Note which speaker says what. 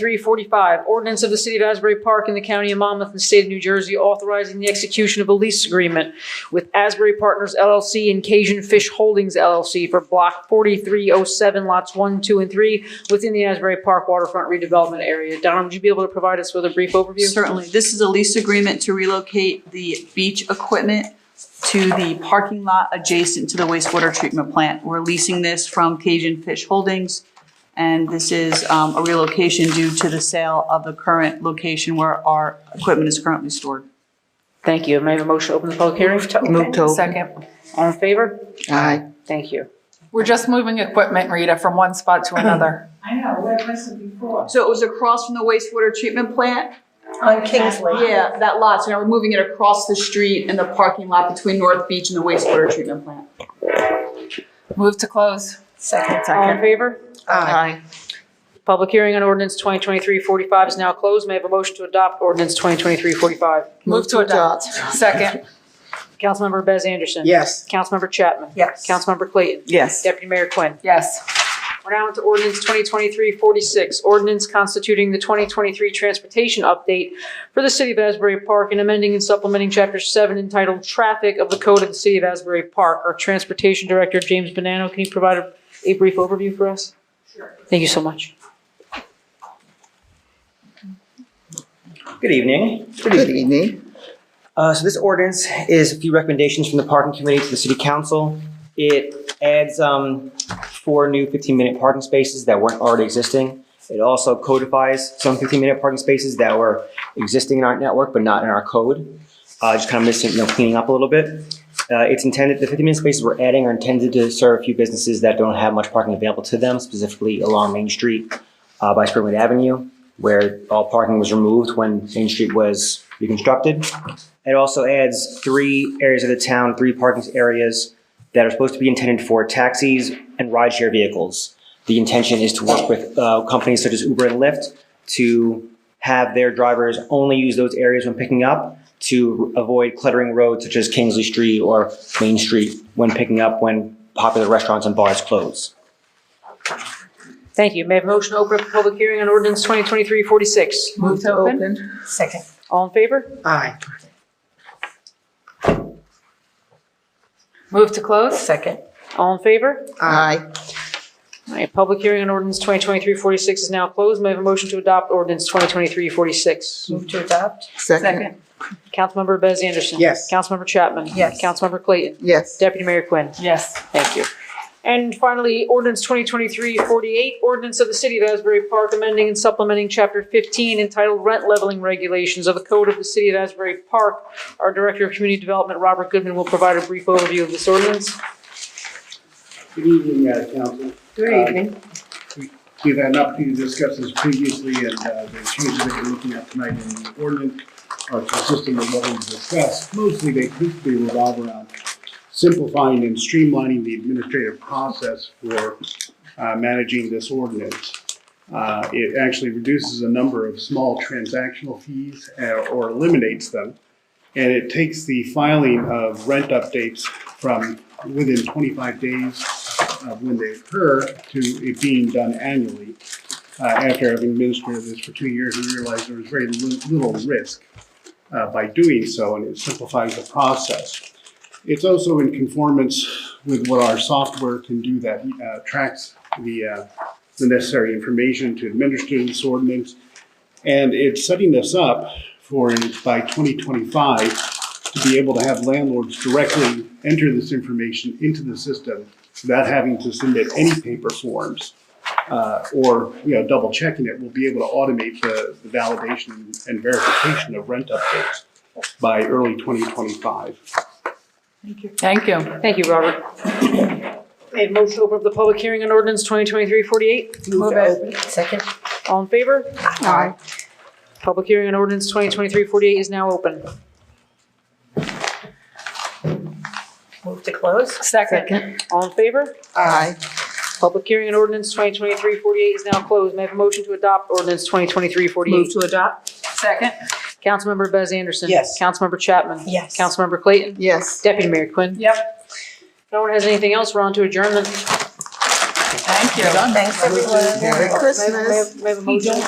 Speaker 1: 2023-45, ordinance of the City of Asbury Park in the County of Monmouth and the State of New Jersey authorizing the execution of a lease agreement with Asbury Partners LLC and Cajun Fish Holdings LLC for Block 4307, Lots 1, 2, and 3, within the Asbury Park waterfront redevelopment area. Donna, would you be able to provide us with a brief overview?
Speaker 2: Certainly, this is a lease agreement to relocate the beach equipment to the parking lot adjacent to the wastewater treatment plant. We're leasing this from Cajun Fish Holdings, and this is um, a relocation due to the sale of the current location where our equipment is currently stored.
Speaker 1: Thank you. May I have a motion to open the public hearing?
Speaker 3: Move to open.
Speaker 4: Second.
Speaker 1: All in favor?
Speaker 3: Aye.
Speaker 1: Thank you.
Speaker 4: We're just moving equipment, Rita, from one spot to another.
Speaker 5: I know, we had listened before.
Speaker 2: So it was across from the wastewater treatment plant?
Speaker 5: On Kingsley.
Speaker 2: Yeah, that lot, so now we're moving it across the street in the parking lot between North Beach and the wastewater treatment plant.
Speaker 4: Move to close.
Speaker 5: Second.
Speaker 1: All
Speaker 4: Um,
Speaker 1: in favor?
Speaker 3: Aye.
Speaker 1: Public hearing on ordinance 2023-45 is now closed. May I have a motion to adopt ordinance 2023-45?
Speaker 4: Move to adopt. Second.
Speaker 1: Councilmember Bez Anderson.
Speaker 3: Yes.
Speaker 1: Councilmember Chapman.
Speaker 5: Yes.
Speaker 1: Councilmember Clayton.
Speaker 3: Yes.
Speaker 1: Deputy Mayor Quinn.
Speaker 4: Yes.
Speaker 1: We're now into ordinance 2023-46, ordinance constituting the 2023 transportation update for the City of Asbury Park and amending and supplementing Chapter 7 entitled Traffic of the Code of the City of Asbury Park. Our Transportation Director, James Bonanno, can you provide a- a brief overview for us? Sure. Thank you so much.
Speaker 6: Good evening.
Speaker 3: Good evening.
Speaker 6: Uh, So this ordinance is a few recommendations from the parking committee to the city council. It adds um, four new 15-minute parking spaces that weren't already existing. It also codifies some 15-minute parking spaces that were existing in our network but not in our code. Uh, Just kind of missing, you know, cleaning up a little bit. Uh, It's intended, the 15-minute spaces we're adding are intended to serve a few businesses that don't have much parking available to them, specifically along Main Street uh, by Springwood Avenue, where all parking was removed when Main Street was reconstructed. It also adds three areas of the town, three parking areas that are supposed to be intended for taxis and rideshare vehicles. The intention is to work with uh, companies such as Uber and Lyft to have their drivers only use those areas when picking up to avoid cluttering roads such as Kingsley Street or Main Street when picking up when popular restaurants and bars close.
Speaker 1: Thank you. May I have a motion to open up the public hearing on ordinance 2023-46?
Speaker 4: Move to open.
Speaker 5: Second.
Speaker 1: All in favor?
Speaker 3: Aye.
Speaker 4: Move to close.
Speaker 5: Second.
Speaker 1: All in favor?
Speaker 3: Aye.
Speaker 1: All right, public hearing on ordinance 2023-46 is now closed. May I have a motion to adopt ordinance 2023-46?
Speaker 5: Move to adopt?
Speaker 3: Second.
Speaker 4: Second.
Speaker 1: Councilmember Bez Anderson.
Speaker 3: Yes.
Speaker 1: Councilmember Chapman.
Speaker 5: Yes.
Speaker 1: Councilmember Clayton.
Speaker 3: Yes.
Speaker 1: Deputy Mayor Quinn.
Speaker 4: Yes.
Speaker 1: Thank you. And finally, ordinance 2023-48, ordinance of the City of Asbury Park amending and supplementing Chapter 15 entitled Rent Leveling Regulations of the Code of the City of Asbury Park. Our Director of Community Development, Robert Goodman, will provide a brief overview of this ordinance.
Speaker 7: Good evening, uh, council.
Speaker 1: Good
Speaker 7: evening. We've had an opportunity to discuss this previously, and uh, the changes that you're looking at tonight in the ordinance are consistent with what we've discussed. Mostly, they principally revolve around simplifying and streamlining the administrative process for uh, managing this ordinance. Uh, It actually reduces a number of small transactional fees uh, or eliminates them, and it takes the filing of rent updates from within 25 days of when they occur to it being done annually. Uh, After having administered this for two years, we realized there was very li- little risk uh, by doing so, and it simplifies the process. It's also in conformance with what our software can do that uh, tracks the uh, the necessary information to administer this ordinance. And it's setting us up for, by 2025, to be able to have landlords directly enter this information into the system without having to submit any paper forms. uh, or, you know, double checking it, we'll be able to automate the, the validation and verification of rent updates by early twenty twenty-five.
Speaker 4: Thank you.
Speaker 1: Thank you, Robert. May I have a motion to open up the public hearing on ordinance 2023-48?
Speaker 4: Move it.
Speaker 5: Second.
Speaker 1: All in favor?
Speaker 3: Aye.
Speaker 1: Public hearing on ordinance 2023-48 is now open.
Speaker 5: Move to close?
Speaker 4: Second.
Speaker 1: All in favor?
Speaker 3: Aye.
Speaker 1: Public hearing on ordinance 2023-48 is now closed. May I have a motion to adopt ordinance 2023-48?
Speaker 4: Move to adopt. Second.
Speaker 1: Councilmember Bez Anderson.
Speaker 3: Yes.
Speaker 1: Councilmember Chapman.
Speaker 5: Yes.
Speaker 1: Councilmember Clayton.
Speaker 3: Yes.
Speaker 1: Deputy Mayor Quinn.
Speaker 4: Yep.
Speaker 1: If no one has anything else, we're on to adjournment.
Speaker 8: Thank you.
Speaker 9: Thanks, everyone.
Speaker 4: Merry Christmas.
Speaker 3: May I have- may I have a motion?